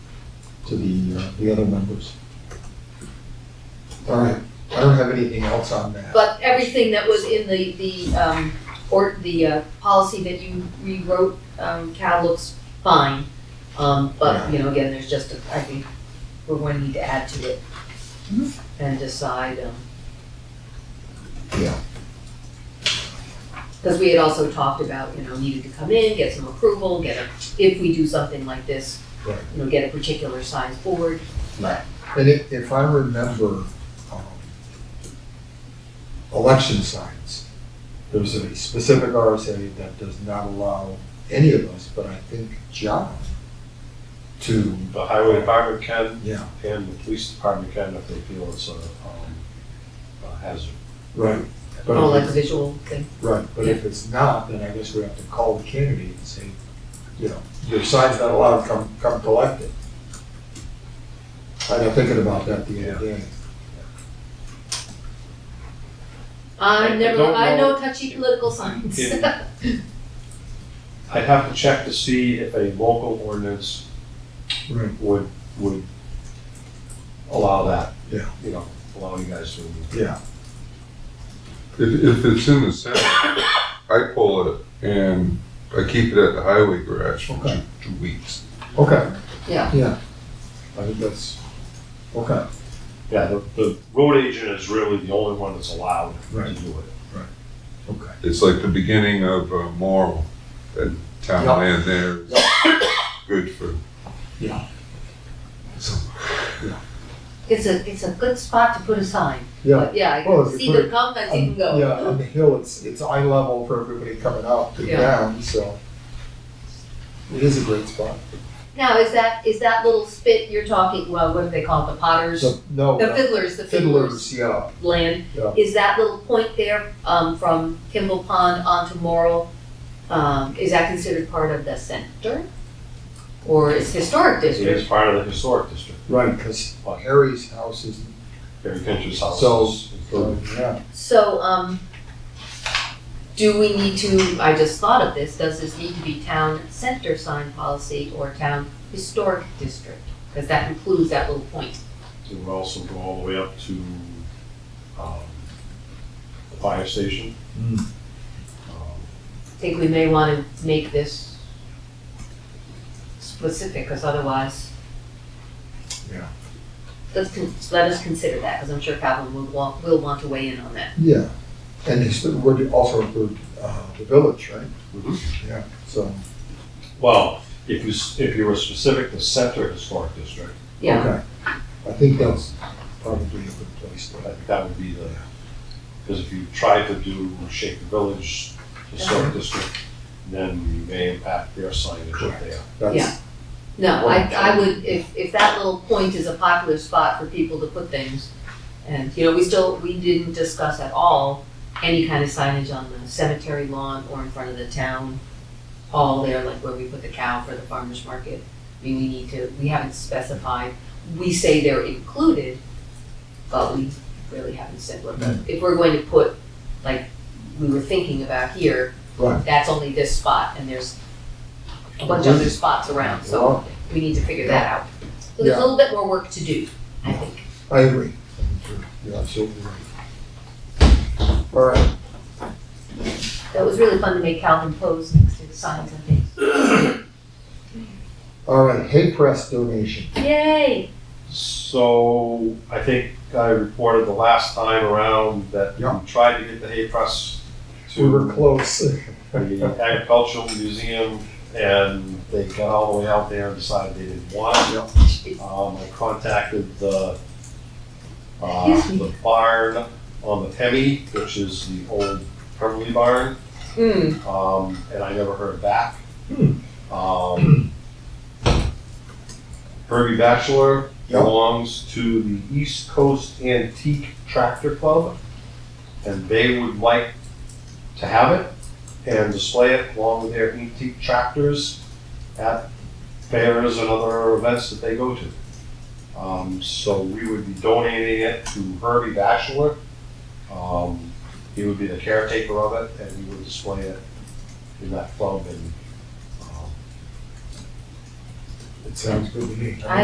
to the, uh, the other members. All right, I don't have anything else on that. But everything that was in the, the, um, or the, uh, policy that you rewrote, um, Cal looks fine. Um, but, you know, again, there's just, a- I think, we're going to need to add to it. And decide, um. Yeah. Cause we had also talked about, you know, needing to come in, get some approval, get a, if we do something like this, Right. you know, get a particular size board. And if, if I remember, um, election signs, there's a specific RSA that does not allow any of us, but I think John, to, The highway department can, yeah, and the police department can if they feel it's a, um, a hazard. right. But Oh, if like a visual thing. Right, but if it's not, then I guess we have to call the candidate and say, you know, your sign's not allowed, come, come collect it. I was thinking about that the other day. I I never, don't I know know. touchy political signs. Yeah. I'd have to check to see if a local ordinance Right. would, would allow that. Yeah. You know, allow you guys to. Yeah, If, if it's in the center, I pull it and I keep it at the highway garage for two, Okay. two weeks. okay, Yeah, I think that's, okay, Yeah, the, the road agent is really the only one that's allowed to Right. do it. okay. It's like the beginning of uh, Morrow, that town Yeah. land there is good for. Yeah. So, it's a, it's a good spot to put a sign, Yeah. but yeah, I Well, can if see you the put come and see them Yeah, go. on the hill, it's, it's eye level for everybody coming up and Yeah. down, so. It is a great spot. Now, is that, is that little spit you're talking, well, what do they call it, the potters? So, no, The uh, fiddlers, the fiddlers fiddlers, yeah, land, yeah, is that little point there, um, from Kimball Pond onto Morrell, um, is that considered part of the center? Or is historic It district? is part of the historic district, right, because uh, like Harry's house is, Harry Finch's house. So- is included. yeah, So, um, do we need to, I just thought of this, does this need to be town center sign policy or town historic district? Because that includes that little point. It would also go all the way up to, um, the fire station. Hmm. Um, I think we may want to make this specific, because otherwise. Yeah. Let's, con- let us consider that, because I'm sure Calvin will want, will want to weigh in on that. yeah. And it's, we're also include, uh, the village, right? Mhm. Yeah, so, Well, if you, s- if you were specific to center historic district, Yeah, okay. I think that's probably a good place I to, think that would be the, because if you tried to do Shaker Village Historic District, then you may impact their signage up there. Yeah. that's, no, I, I would, if, if that little point is a popular spot for people to put things, and, you know, we still, we didn't discuss at all any kind of signage on the cemetery lawn or in front of the town hall there, like where we put the cow for the farmer's market. I mean, we need to, we haven't specified, we say they're included, but we really haven't said what the, if we're going to put, like, we were thinking about here, right, that's only this spot, and there's a bunch of other spots around, so we need to figure that out. So there's a Yeah. little bit more work to do, I think. I agree. You're absolutely right. All right, That was really fun to make Calvin pose next to the signs and things. all right, hay press donation. Yay! So I think I reported the last time around that Yeah. we tried to get the hay press We were to close. the agricultural museum, and they got all the way out there and decided they didn't want it. Um, I contacted the, uh, Excuse me. the barn on the Pemmy, which is the old Pemberley barn, Hmm, um, and I never heard back. Hmm. Um, Herbie Bachelor Yeah. belongs to the East Coast Antique Tractor Club, and they would like to have it and display it along with their antique tractors at fairs and other events that they go to. Um, so we would be donating it to Herbie Bachelor. Um, he would be the caretaker of it and he would display it in that club and, um, It sounds good to me.